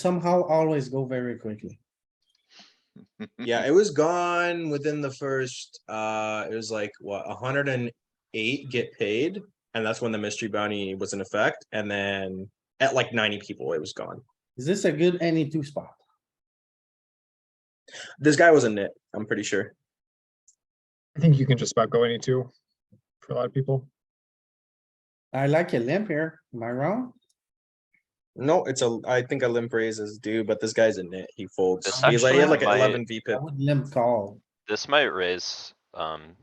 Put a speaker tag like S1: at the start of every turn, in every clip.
S1: somehow always go very quickly.
S2: Yeah, it was gone within the first, uh, it was like, what, hundred and eight get paid? And that's when the mystery bounty was in effect, and then at like ninety people, it was gone.
S1: Is this a good any two spot?
S2: This guy was a nit, I'm pretty sure.
S3: I think you can just about go any two for a lot of people.
S1: I like a limp here. Am I wrong?
S2: No, it's a, I think a limp raise is due, but this guy's a nit, he folds.
S4: This
S2: He's like, he had like
S4: actually might-
S2: eleven V
S1: I
S2: pip.
S1: would limp call.
S4: This might raise, um,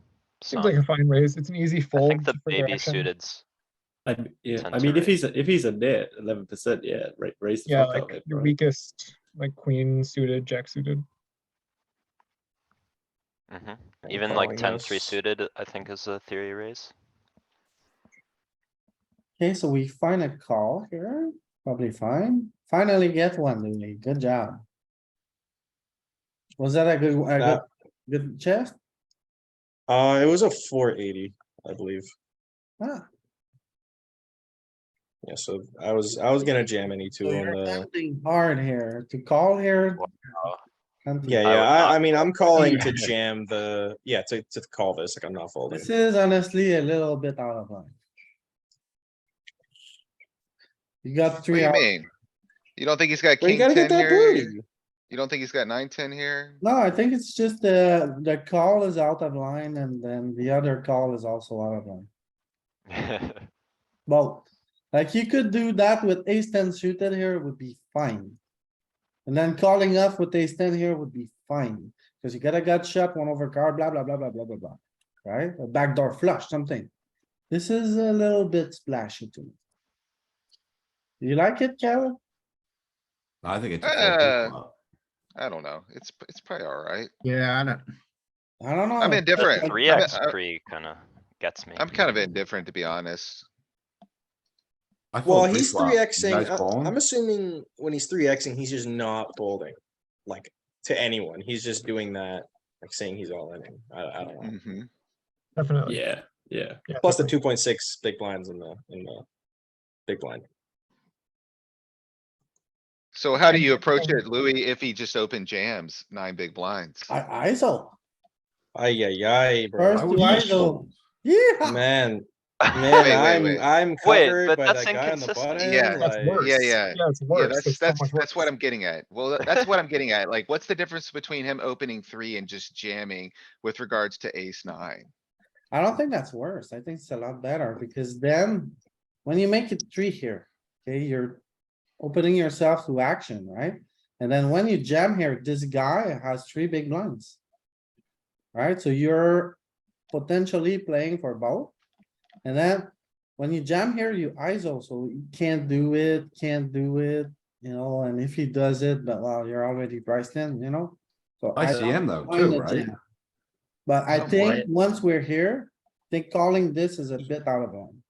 S3: Seems like a
S4: some.
S3: fine raise. It's an easy
S4: I
S3: fold.
S4: think the
S3: for
S4: baby
S3: action.
S4: suiteds,
S5: I, m- yeah,
S4: tend
S5: I
S4: to
S5: mean, if
S4: raise.
S5: he's, a- if he's a net, eleven percent, yeah, ra- raise the
S3: Yeah,
S5: fuck out of
S3: like
S5: it,
S3: your
S5: bro.
S3: weakest, like queen suited, jack suited.
S4: mhm.
S2: I'm
S4: Even like
S2: calling
S4: ten three
S2: this.
S4: suited, I think is a theory raise.
S1: Okay, so we find a call here, probably fine. Finally get one, Louis. Good job. Was that a good, a
S2: Uh,
S1: good, good chest?
S2: Uh, it was a four eighty, I believe.
S1: Ah,
S2: Yeah, so I was, I was gonna jam any two
S1: so
S2: on
S1: you're
S2: the,
S1: tempting hard here to call here. Tempting.
S2: yeah,
S4: I would
S2: yeah, I, I mean, I'm calling to
S1: Yeah.
S2: jam the, yeah, to, to call this, like, I'm not folding.
S1: This is honestly a little bit out of line. You got
S6: What do
S1: three
S6: you
S1: out.
S6: mean? You don't think he's got
S2: Well, you
S6: king
S2: gotta
S6: ten
S2: get that
S6: here?
S2: booty.
S6: You don't think he's got nine, ten here?
S1: No, I think it's just the, the call is out of line and then the other call is also out of line. Well, like you could do that with ace ten suited here would be fine. And then calling off with ace ten here would be fine, cuz you got a gut shot, one over card, blah, blah, blah, blah, blah, blah, blah. Right? A backdoor flush, something. This is a little bit splashy to me. You like it, Kevin?
S7: I think it's.
S6: Uh,
S7: a fold.
S6: I don't know. It's, p- it's probably alright.
S3: Yeah, I don't.
S1: I don't know.
S6: I'm indifferent.
S4: Three
S6: I'm-
S4: X
S6: I-
S4: pre kinda gets me.
S6: I'm kind of indifferent, to be honest.
S7: I fold
S2: Well, he's
S7: pre-flop.
S2: three
S7: You guys
S2: Xing.
S7: calling?
S2: I'm assuming when he's three Xing, he's just not folding, like to anyone. He's just doing that, like saying he's all in. I, I don't know.
S6: Mhm.
S3: Definitely.
S5: Yeah, yeah.
S3: yeah,
S2: Plus the
S3: definitely.
S2: two point six big blinds in the in the big blind.
S6: So how do
S3: And
S6: you
S3: check
S6: approach
S3: fold.
S6: it, Louis, if he just opened jams, nine big blinds?
S1: I, ISO,
S2: Ay yeah,
S7: I
S1: First-
S2: bro.
S7: would
S1: Why
S7: use
S1: though?
S7: fold.
S1: yeah,
S2: Man,
S6: Wait, wait,
S2: man,
S6: wait.
S2: I'm I'm
S4: Wait,
S2: covered
S4: but
S2: by
S4: that's
S2: that guy on the
S4: inconsistent.
S2: button.
S6: Yeah.
S3: That's
S2: like-
S3: worse.
S6: Yeah, yeah.
S3: Yeah, it's
S6: Yeah,
S3: worse.
S6: that's,
S3: It's so
S6: that's,
S3: much
S6: that's what
S3: worse.
S6: I'm getting at. Well, that's what I'm getting at. Like, what's the difference between him opening three and just jamming with regards to ace nine?
S1: I don't think that's worse. I think it's a lot better because then when you make it three here, okay, you're opening yourself to action, right? And then when you jam here, this guy has three big blinds. Right? So you're potentially playing for both. And then when you jam here, you ISO, so you can't do it, can't do it, you know, and if he does it, but well, you're already priced in, you know? So I don't-
S7: ICM though,
S1: Why
S7: too,
S1: not
S7: right?
S1: jam? But I
S6: Some
S1: think once we're here, I think calling this is a bit out of line.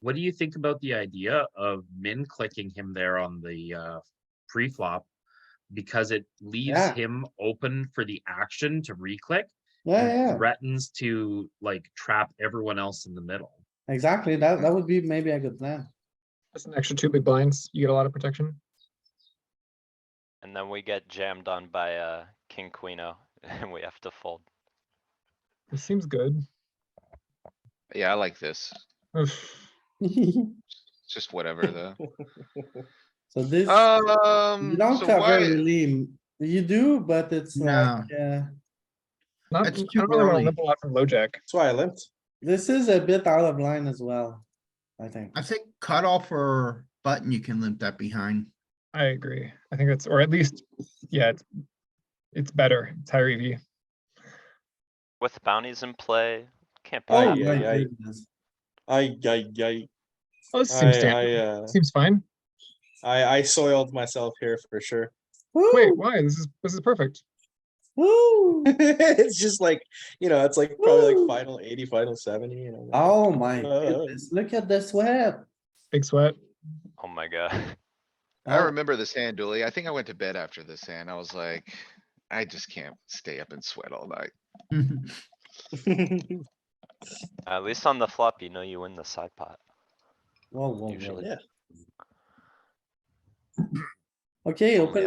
S8: What do you think about the idea of min clicking him there on the uh pre-flop? Because it leaves
S1: Yeah.
S8: him open for the action to re-click
S1: Yeah,
S6: Mm.
S8: and
S1: yeah,
S8: threatens to like trap everyone else in the middle.
S1: exactly. That, that would be maybe a good plan.
S3: That's an extra two big blinds. You get a lot of protection.
S4: And then we get jammed on by, uh, king queen O and we have to fold.
S3: It seems good.
S6: Yeah, I like this.
S3: Oof.
S1: So
S6: Just whatever though.
S1: this, you
S6: Um,
S1: don't
S6: so
S1: cover
S6: why?
S1: really, you do, but it's like, uh,
S3: Not, I
S6: It's
S3: don't really wanna limp a lot from low jack.
S2: That's why I limped.
S1: this is a bit out of line as well, I think.
S9: I think cutoff or button, you can limp that behind.
S3: I agree. I think that's, or at least, yeah, it's, it's better. It's higher E EV.
S4: With bounties in play, can't
S2: Oh,
S4: play.
S1: Oh
S2: yeah,
S1: my
S2: yeah.
S1: goodness.
S2: I I I
S3: Oh, this seems
S2: I I,
S3: standard.
S2: uh,
S3: Seems fine.
S2: I I soiled myself here for sure.
S3: Wait,
S1: Woo,
S3: why? This is, this is perfect.
S1: woo.
S2: it's just like you know, it's like probably
S1: Woo.
S2: like final eighty, final seventy. You know.
S1: Oh my goodness, look at the sweat.
S3: Big sweat.
S4: Oh my god.
S6: I
S1: Oh.
S6: remember this hand, Dooley. I think I went to bed after this hand. I was like, I just can't stay up and sweat all night.
S4: At least on the flop, you know you win the side pot.
S1: Whoa, whoa, whoa.
S4: Usually.
S2: Yeah.
S1: Okay, open